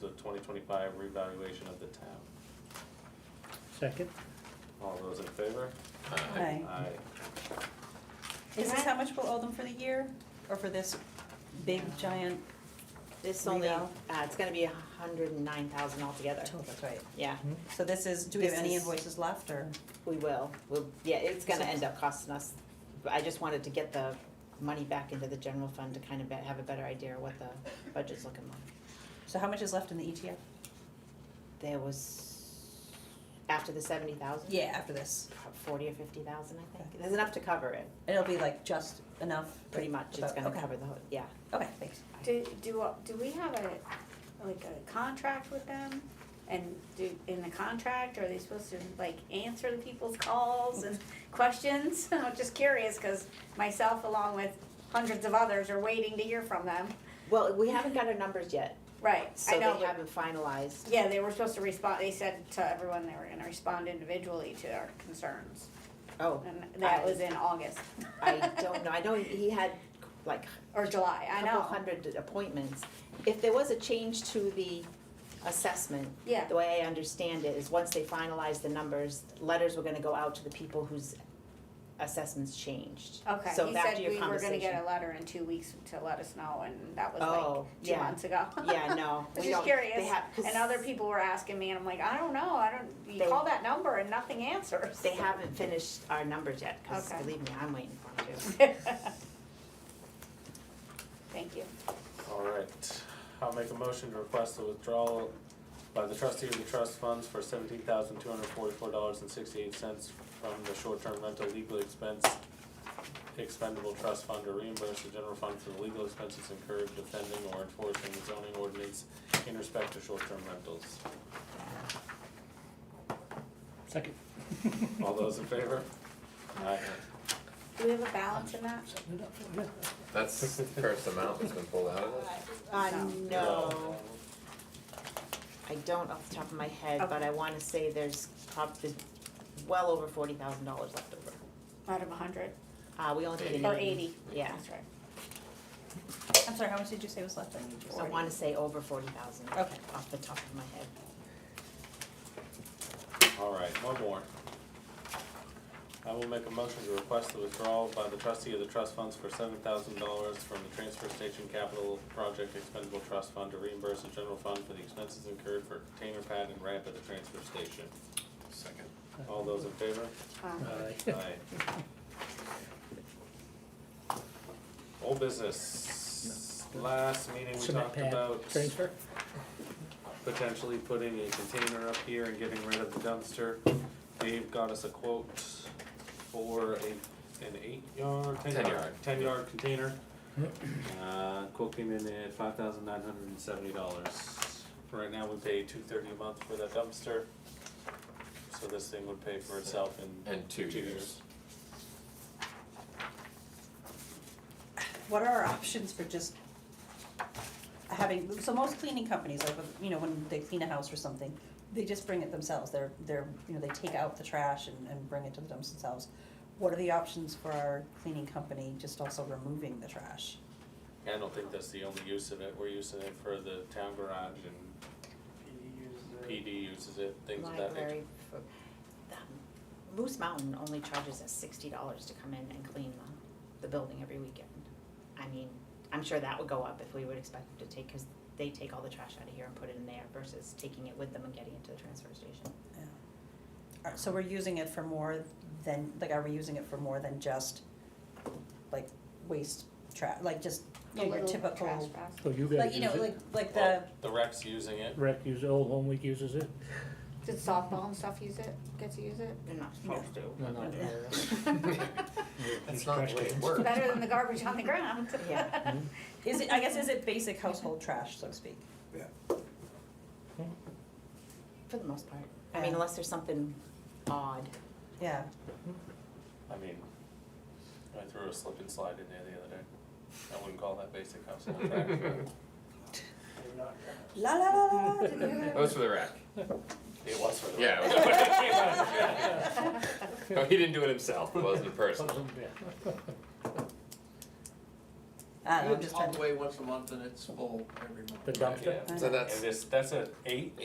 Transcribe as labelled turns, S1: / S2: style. S1: twenty twenty-five revaluation of the town.
S2: Second?
S1: All those in favor?
S3: Aye.
S1: Aye.
S3: Is this how much we'll owe them for the year, or for this big giant?
S4: This only, uh,
S3: Revale.
S4: it's gonna be a hundred and nine thousand altogether.
S3: That's right.
S4: Yeah,
S3: So this is, do we have
S4: This
S3: any
S4: is-
S3: invoices left, or?
S4: we will, we'll, yeah, it's gonna end up costing us, but I just wanted to get the money back into the general fund to kind of be- have a better idea of what the budget's looking like.
S3: So how much is left in the E ETF?
S4: There was, after the seventy thousand?
S3: Yeah, after this.
S4: Forty or fifty thousand, I think, there's enough to cover it,
S3: It'll be like just enough?
S4: pretty much, it's
S3: About-
S4: gonna
S3: okay.
S4: cover the whole, yeah.
S3: Okay, thanks.
S5: Do, do, do we have a, like a contract with them? And do, in the contract, are they supposed to like answer the people's calls and questions? I'm just curious, cause myself along with hundreds of others are waiting to hear from them.
S4: Well, we haven't got our numbers yet,
S5: Right,
S4: so
S5: I
S4: they
S5: know, but-
S4: haven't finalized.
S5: yeah, they were supposed to respond, they said to everyone they were gonna respond individually to our concerns.
S4: Oh,
S5: And that
S4: I-
S5: was in August
S4: I don't know, I know he had like
S5: or July, I
S4: a
S5: know.
S4: couple hundred appointments. If there was a change to the assessment,
S5: Yeah,
S4: the way I understand it is once they finalize the numbers, letters were gonna go out to the people whose assessments changed.
S5: okay,
S4: So
S5: he
S4: back
S5: said
S4: to your
S5: we were gonna get
S4: conversation.
S5: a letter in two weeks to let us know and that was
S4: Oh,
S5: like two
S4: yeah.
S5: months ago.
S4: Yeah, no,
S5: was
S4: we
S5: just
S4: don't, they
S5: curious,
S4: have, cause
S5: And other people were asking me, and I'm like, I don't know, I don't, you
S4: They-
S5: call that number and nothing answers.
S4: they haven't finished our numbers yet, cause
S5: Okay.
S4: believe me, I'm waiting for them to.
S5: Thank you.
S1: All right, I'll make a motion to request the withdrawal by the trustee of the trust funds for seventeen thousand two hundred forty-four dollars and sixty-eight cents from the short-term rental legal expense expendable trust fund to reimburse the general fund for the legal expenses incurred defending or enforcing the zoning ordinance in respect to short-term rentals.
S2: Second.
S1: All those in favor? Aye.
S5: Do we have a balance in that?
S6: That's the first amount that's been pulled out of this.
S4: Uh, no,
S1: No.
S4: I don't off the top of my head, but
S5: Okay.
S4: I wanna say there's prob, there's well over forty thousand dollars left over.
S5: Out of a hundred
S4: Uh, we only paid an
S5: or eighty?
S4: Yeah,
S5: That's right.
S3: I'm sorry, how much did you say was left in E the ETF?
S4: so I wanna say over forty thousand
S3: Okay.
S4: off the top of my head.
S1: All right, one more. I will make a motion to request the withdrawal by the trustee of the trust funds for seven thousand dollars from the transfer station capital project expendable trust fund to reimburse the general fund for the expenses incurred for container pad and ramp at the transfer station.
S6: Second.
S1: All those in favor?
S4: Uh,
S5: Um,
S2: Aye.
S1: Aye. Old business. Last meeting we
S2: Cement
S1: talked
S2: pad
S1: about
S2: transfer?
S1: potentially putting a container up here and getting rid of the dumpster. Dave got us a quote for a, an eight yard, ten yard,
S6: Ten
S1: ten
S6: yard.
S1: yard, container. Uh, quote came in at five thousand nine hundred and seventy dollars. Right now, we pay two thirty a month for that dumpster. So this thing would pay for itself in
S6: And two
S1: two
S6: years.
S1: years.
S3: What are our options for just having, so most cleaning companies, like, you know, when they clean a house or something, they just bring it themselves, they're, they're, you know, they take out the trash and, and bring it to the dumps themselves. What are the options for our cleaning company just also removing the trash?
S1: I don't think that's the only use of it, we're using it for the town garage and PD uses it, things of that nature.
S4: library for, um, Moose Mountain only charges us sixty dollars to come in and clean the, the building every weekend. I mean, I'm sure that would go up if we would expect them to take, cause they take all the trash out of here and put it in there versus taking it with them and getting it to the transfer station.
S3: Are- So we're using it for more than, like, are we using it for more than just, like, waste trash, like, just, you know, your
S5: little trash
S3: typical,
S5: basket.
S2: So Oh, you
S3: like,
S2: guys
S3: you
S2: use
S3: know, like,
S2: it?
S3: like the.
S1: Well, The rec's using it,
S2: Rec use, Old Home Week uses it?
S5: Did softball and stuff use it, get to use it?
S4: They're not supposed to.
S2: No, no.
S6: That's not the way it works.
S5: Better than the garbage on the ground.
S4: Yeah.
S3: Is it, I guess, is it basic household trash, so to speak?
S4: For the most part. I mean, unless there's something odd.
S3: Yeah.
S1: I mean, I threw a slip and slide in there the other day. I wouldn't call that basic house on track.
S3: La la la la, la, did you hear
S6: That
S3: that?
S6: was for the rack.
S1: It was for the.
S6: Yeah. it was- No, he didn't do it himself. It wasn't personal.
S2: Yeah.
S3: Uh,
S7: I don't know,
S4: You
S7: I'm just
S4: all
S7: trying
S4: the
S7: to.
S4: way once a month and it's full every month.
S8: The dumpster?
S1: Yeah.
S2: So that's
S1: And this, that's a eight